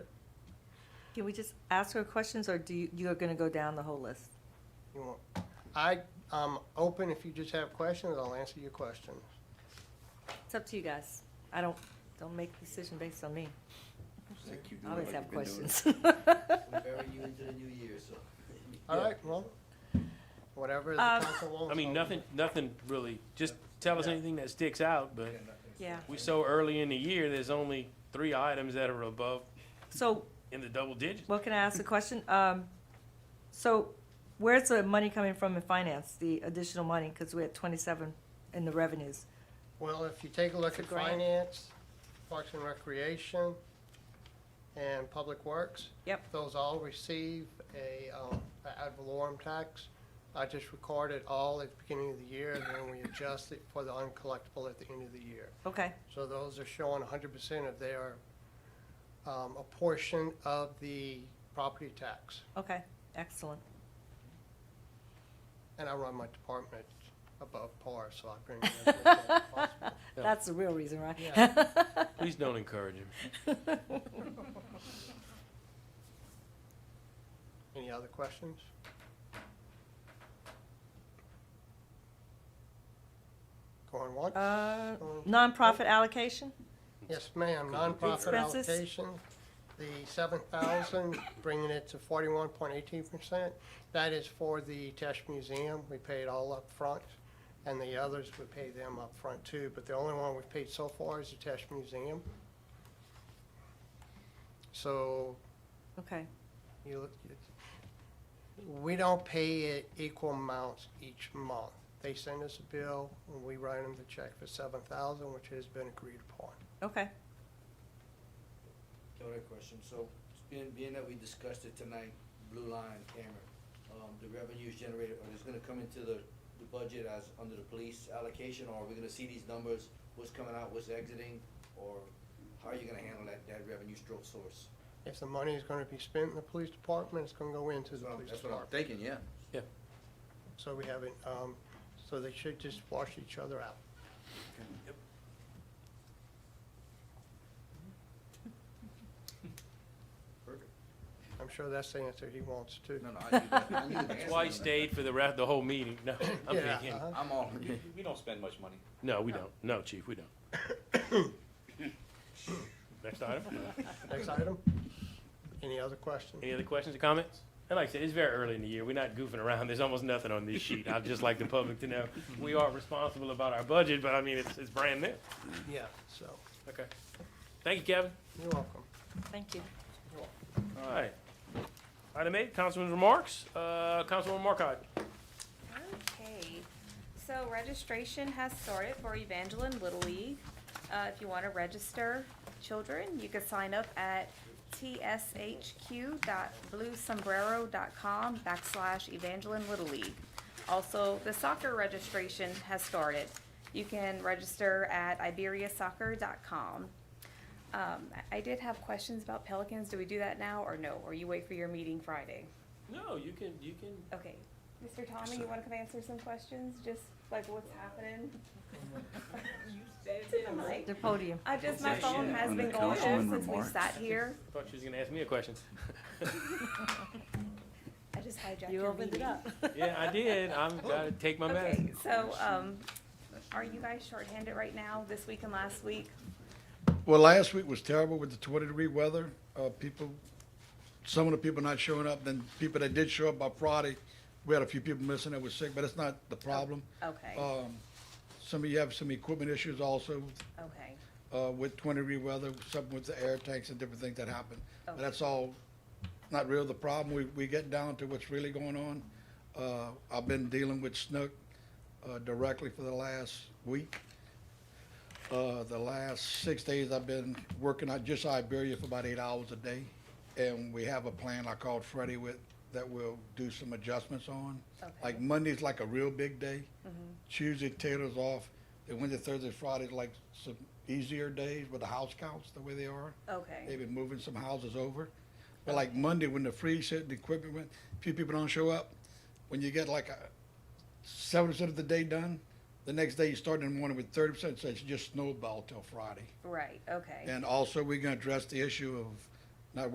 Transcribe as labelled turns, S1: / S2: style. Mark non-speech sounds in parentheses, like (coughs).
S1: Can we just ask her questions, or do you, you're gonna go down the whole list?
S2: You want- I, I'm open, if you just have questions, I'll answer your questions.
S1: It's up to you guys. I don't, don't make a decision based on me. I always have questions. (laughs)
S3: We're very you into the new year, so.
S2: All right, well, whatever the
S1: Um,
S2: council wants.
S4: I mean,
S2: I'll-
S4: nothing, nothing really, just tell us anything that sticks out, but
S1: Yeah,
S4: we so early in the year, there's only three items that are above
S1: so,
S4: in the double digits.
S1: well, can I ask a question? Um, so, where's the money coming from in finance, the additional money, because we're at twenty-seven in the revenues?
S2: Well, if you take a look at
S1: grant.
S2: finance, Parks and Recreation, and Public Works.
S1: Yep.
S2: Those all receive a, um, a ad valorem tax. I just record it all at the beginning of the year, and then we adjust it for the uncollectible at the end of the year.
S1: Okay,
S2: So those are showing hundred percent of their, um, a portion of the property tax.
S1: okay, excellent.
S2: And I run my department above par, so I bring in as much as possible.
S1: That's the real reason, right?
S4: Please don't encourage him.
S2: Any other questions? Going once?
S1: (laughs) Uh,
S2: Going-
S1: Nonprofit allocation?
S2: Yes, ma'am, nonprofit
S1: Expenses?
S2: allocation, the seven thousand, bringing it to forty-one point eighteen percent. That is for the Tesh Museum, we pay it all up front, and the others, we pay them up front too, but the only one we've paid so far is the Tesh Museum. So
S1: Okay,
S2: you, look- you- we don't pay it equal amounts each month. They send us a bill, and we write them the check for seven thousand, which has been agreed upon.
S1: okay,
S3: Got a question, so, being, being that we discussed it tonight, Blue Line camera, um, the revenues generated, are this gonna come into the, the budget as, under the police allocation, or are we gonna see these numbers, what's coming out, what's exiting, or how are you gonna handle that, that revenue stroke source?
S2: If the money is gonna be spent in the police department, it's gonna go into
S3: That's
S2: the
S3: what I'm-
S2: police
S3: That's what I'm
S2: department.
S3: thinking, yeah.
S2: So we haven't, um, so they should just wash each other out.
S3: Perfect.
S2: I'm sure that's the answer he wants too.
S3: No, no, I knew that, I knew the
S4: That's why he
S3: answer to that.
S4: stayed for the rest, the whole meeting. No, I'm
S2: Yeah,
S4: kidding.
S2: uh-huh.
S3: I'm all,
S5: We don't spend much money.
S4: No, we don't. No, chief, we don't. (coughs) Next item.
S2: Next item? Any other questions?
S4: Any other questions or comments? And like I said, it's very early in the year. We're not goofing around. There's almost nothing on this sheet. I'd just like the public to know, we are responsible about our budget, but I mean, it's, it's brand new.
S2: Yeah, so,
S4: Okay. Thank you, Kevin.
S2: you're welcome.
S1: thank you.
S4: All right. Item eight, Councilman's remarks. Uh, Councilwoman Markcott.
S6: Okay, so registration has started for Evangeline Little League. Uh, if you want to register children, you can sign up at tshq.bluesombrero.com backslash Evangeline Little League. Also, the soccer registration has started. You can register at iberiasoccer.com. Um, I- I did have questions about Pelicans. Do we do that now or no? Or you wait for your meeting Friday?
S4: No, you can, you can.
S6: Okay, Mr. Tommy, you wanna come answer some questions, just like what's
S3: (laughs)
S6: happening? To the mic.
S1: The podium.
S6: I just, my phone
S3: Yeah,
S6: has
S3: on
S6: been
S3: the
S6: going
S3: council
S6: off
S3: and
S6: since we
S3: remarks.
S6: sat here,
S4: I thought she was gonna ask me a question.
S6: I just hijacked
S1: You
S6: your
S1: opened it
S6: meeting.
S1: up.
S4: Yeah, I did. I'm gotta take my
S6: Okay,
S4: medicine.
S6: so, um, are you guys shorthanded right now, this week and last week?
S7: Well, last week was terrible with the twenty degree weather. Uh, people, some of the people not showing up, then people that did show up by Friday, we had a few people missing that were sick, but it's not the problem.
S6: Oh, Okay,
S7: Um, some of you have some equipment issues also,
S6: (laughs) okay,
S7: uh, with twenty degree weather, something with the air tanks and different things that happen. But
S6: Okay.
S7: that's all not real the problem. We, we get down to what's really going on. Uh, I've been dealing with Snook, uh, directly for the last week. Uh, the last six days I've been working on just Iberia for about eight hours a day. And we have a plan I called Freddie with that we'll do some adjustments on.
S6: okay,
S7: Like Monday's like a real big day. Tuesday Taylor's off. And Wednesday, Thursday, Friday's like some easier days with the house counts the way they are. They've
S6: okay,
S7: been moving some houses over. But like Monday, when the freeze hit, the equipment went, few people don't show up. When you get like a seventy percent of the day done, the next day you start in the morning with thirty percent, so it's just snowball till Friday.
S6: right, okay,
S7: And also, we're gonna address the issue of